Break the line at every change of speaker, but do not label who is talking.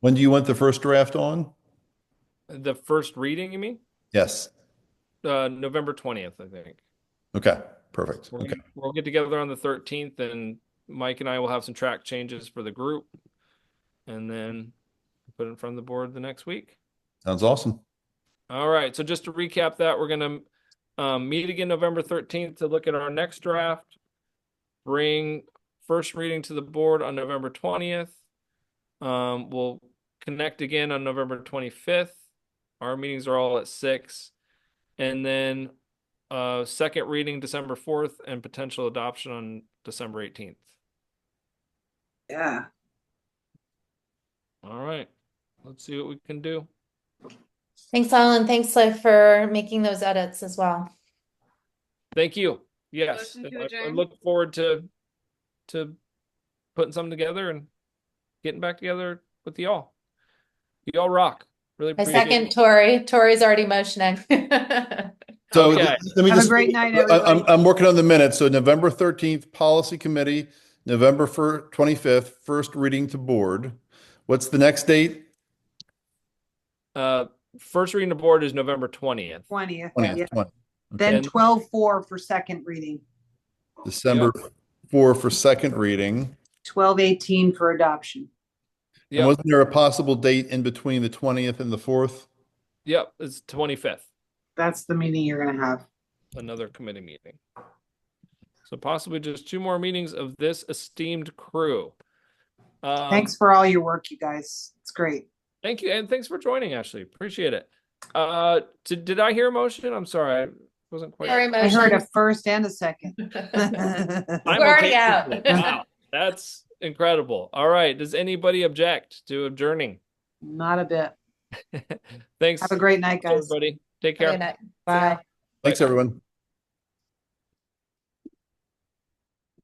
When do you want the first draft on?
The first reading, you mean?
Yes.
Uh, November twentieth, I think.
Okay, perfect.
We're
Okay,
gonna- We'll get together on the thirteenth and Mike and I will have some track changes for the group. And then put it in front of the board the next week.
sounds awesome.
All right, so just to recap that, we're gonna um meet again November thirteenth to look at our next draft. Bring first reading to the board on November twentieth. Um, we'll connect again on November twenty-fifth. Our meetings are all at six. And then uh second reading December fourth and potential adoption on December eighteenth.
Yeah,
All right, let's see what we can do.
Thanks, Alan. Thanks, Liv, for making those edits as well.
Thank you. Yes,
Motion
and
to
I- I
adjourn.
look forward to, to putting something together and getting back together with y'all. Y'all rock. Really
I
appreciate it. Oh,
second Tori. Tori's already motioning.
So
Okay.
let me
Have a
just-
great night,
I- I'm,
everybody.
I'm working on the minutes. So November 13th, Policy Committee, November fir- 25th, first reading to board. What's the next date?
Uh, first reading the board is November twentieth.
twentieth.
20th, 20th.
Then
Okay.
twelve four for second reading,
December 4 for second reading.
twelve eighteen for adoption.
And
Yep,
wasn't there a possible date in between the 20th and the 4th?
yep, it's twenty-fifth,
That's the meeting you're gonna have.
another committee meeting. So possibly just two more meetings of this esteemed crew. Um,
Thanks for all your work, you guys. It's great.
Thank you, and thanks for joining, Ashley. Appreciate it. Uh, did, did I hear a motion? I'm sorry, I wasn't quite.
Tori
I heard a
motion.
first and a second.
I'm
We're already
okay
out.
with it. Wow, that's incredible. All right. Does anybody object to adjourning?
Not a bit.
Thanks,
Have a great night, guys.
everybody. Take care.
Good night.
Bye.
Thanks, everyone.